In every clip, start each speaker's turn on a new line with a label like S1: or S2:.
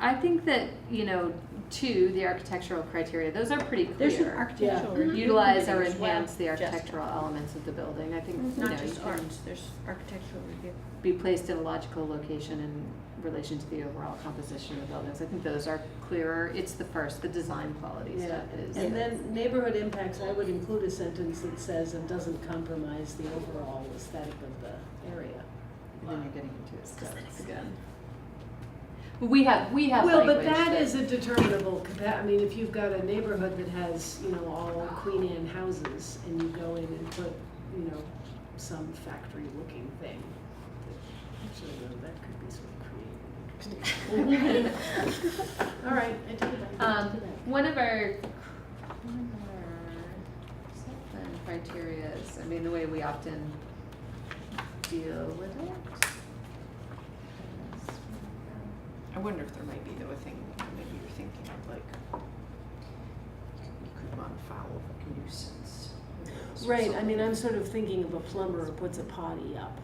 S1: I think that, you know, two, the architectural criteria, those are pretty
S2: There's an
S1: clear.
S2: architectural.
S3: Yeah.
S2: review
S1: Utilize or
S2: committee as well,
S1: enhance the
S2: Jessica.
S1: architectural elements of the building. I think,
S2: It's
S3: Mm-hmm.
S1: you know,
S2: Not
S1: you
S2: just
S1: can
S2: art, there's architectural review.
S1: be placed in a logical location in relation to the overall composition of the buildings. I think those are clearer. It's the first, the design quality
S3: Yeah,
S1: stuff is.
S3: and then neighborhood impacts, I would include a sentence that says and doesn't compromise the overall aesthetic of the area.
S1: And then you're getting into aesthetics again. We have, we have
S3: Well, but
S1: language
S3: that is a determinable, capa- I mean, if you've got a neighborhood that has, you know, all Queen Anne houses and you go in and put, you know, some factory looking thing. that- Actually, no, that could be sort of creative. and interesting. All right, I take it back.
S1: Um, one of our, one of our site plan criteria is, I mean, the way we often deal with it. is-
S4: I wonder if there might be though a thing that maybe you're thinking of like you could modify a nuisance. or
S3: Right, I
S4: something.
S3: mean, I'm sort of thinking of a plumber who puts a potty up.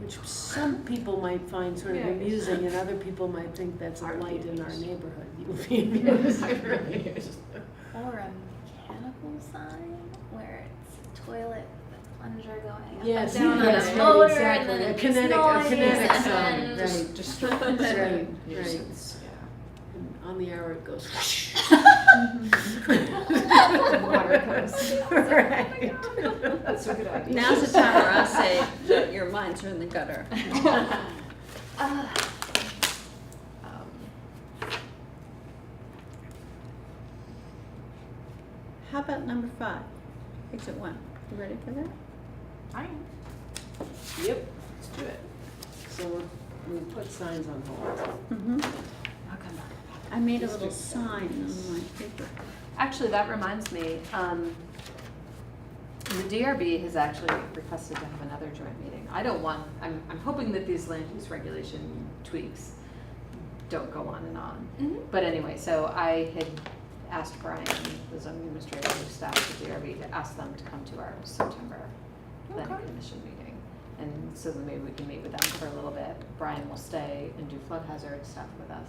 S3: Which some people might find sort of
S4: Yeah, I guess.
S3: amusing and other people might think that's a
S4: Our
S3: light in our
S4: neighbors.
S3: neighborhood. You would be amused.
S5: Or a mechanical sign where it's a toilet with a plunger going up
S3: Yes,
S5: and down
S3: yes,
S5: on
S3: right,
S5: a motor
S3: exactly.
S5: and
S3: A
S5: then it
S3: kinetic- a
S5: makes noise
S3: kinetic
S5: and
S3: sign,
S5: then
S3: right.
S4: Just
S3: Right, right.
S4: nuisance, yeah.
S3: And On the hour it goes.
S4: Water comes.
S3: Right.
S4: That's a good idea.
S2: Now's the time where I say, that your minds are in the gutter.
S5: uh,
S4: Um,
S2: How about number five? Exit one. You ready for that?
S4: I am.
S3: Yep,
S4: Let's do it.
S3: so we're- we put signs on hold.
S2: Mm-hmm.
S1: I'll come back.
S2: I made a little sign on my paper.
S1: Actually, that reminds me, um, the DRB has actually requested to have another joint meeting. I don't want, I'm, I'm hoping that these land use regulation tweaks don't go on and on.
S5: mm-hmm.
S1: But anyway, so I had asked Brian, the zoning administrator, who staff the DRB, to ask them to come to our September planning
S4: Okay.
S1: commission meeting. And so then maybe we can meet with them for a little bit. Brian will stay and do flood hazard stuff with us.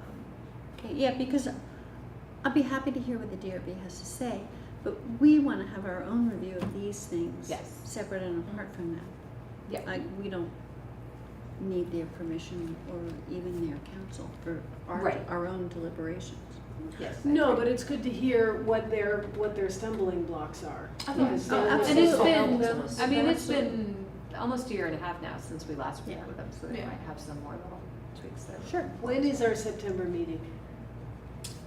S1: Um,
S2: Okay, yeah, because I'll be happy to hear what the DRB has to say, but we want to have our own review of these things.
S1: Yes.
S2: Separate and apart from that.
S1: Yeah.
S2: Like, we don't need their permission or even their counsel for our,
S1: Right.
S2: our own deliberations.
S1: Yes. I
S3: No,
S1: agree.
S3: but it's good to hear what their, what their stumbling blocks are. Because
S2: Oh,
S3: they'll-
S1: And it's
S2: absolutely.
S1: been,
S3: they'll help us.
S1: I mean, it's been almost a year and a half now since we last met
S2: Yeah.
S1: with them, so they
S4: Yeah.
S1: might have some more little tweaks there.
S2: Sure.
S3: When is our September meeting?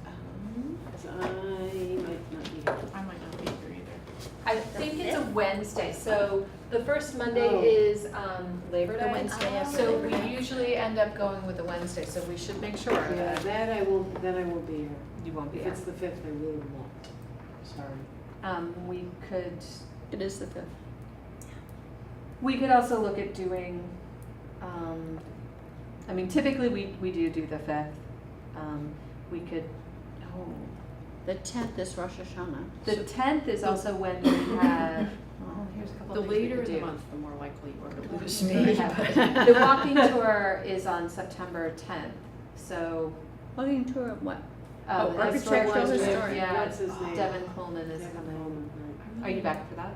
S4: Um,
S3: 'Cause I might not be here.
S4: I might not be here either.
S1: I think it's a Wednesday, so the first Monday
S3: Oh.
S1: is um, Labor Day.
S5: Wednesday after
S1: So
S5: Labor
S1: we
S5: Day.
S1: usually end up going with a Wednesday, so we should make sure
S3: Yeah,
S1: that
S3: that I will, then I won't be here.
S1: you won't be
S3: If
S1: here.
S3: it's the fifth, I really won't. Sorry.
S1: Um, we could,
S2: It is the fifth.
S1: we could also look at doing, um, I mean, typically we, we do do the fifth. Um, we could, oh,
S2: The tenth is Rosh Hashanah.
S1: the tenth is also when we have, oh, here's a couple
S4: The
S1: of things we
S4: later
S1: could
S4: in
S1: do.
S4: the month, the more likely you are to lose
S1: Yeah.
S4: me.
S1: The walking tour is on September tenth, so,
S2: Walking tour of what?
S1: uh,
S2: Oh,
S1: the historical
S2: architectural
S1: district,
S2: historic.
S1: yeah,
S3: What's his name?
S1: Devin Coleman is
S3: Devin
S1: coming.
S3: Coleman, right.
S1: Are you back for that?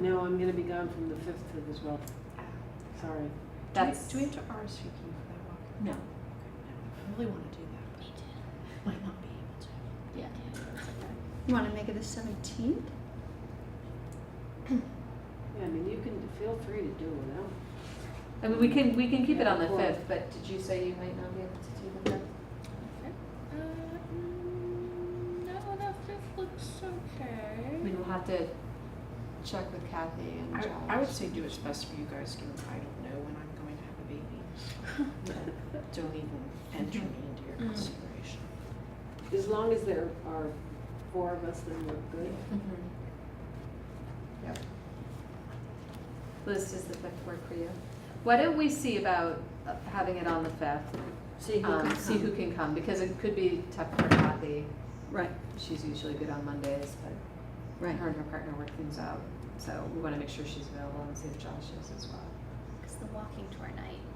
S3: No, I'm gonna be gone from the fifth to the twelfth. Sorry.
S1: That's.
S4: Do we have to RSVP for that walk?
S1: No.
S4: I really want to do that, but might not be able to.
S1: Yeah.
S2: You want to make it the seventeenth?
S3: Yeah, I mean, you can, feel free to do it without.
S1: I mean, we can, we can keep it on the
S3: Yeah, cool.
S1: fifth, but did you say you might not be able to do the fifth?
S5: Uh, mm, no, that fifth looks
S1: I
S5: okay.
S1: mean, we'll have to check with Kathy and Josh.
S4: I, I would say do what's best for you guys, given I don't know when I'm going to have a baby. Don't even enter me into your
S1: Mm.
S4: consideration.
S3: As long as there are four of us, then we're good.
S1: Mhm. Yep. Liz, does the fifth work for you? Why don't we see about uh, having it on the fifth?
S2: See who
S1: Um,
S2: can
S1: see who
S2: come.
S1: can come, because it could be tough for Kathy.
S2: Right,
S1: She's usually good on Mondays, but
S2: right.
S1: her and her partner work things out. So we want to make sure she's available and see if Josh is as well.
S5: Because the walking tour night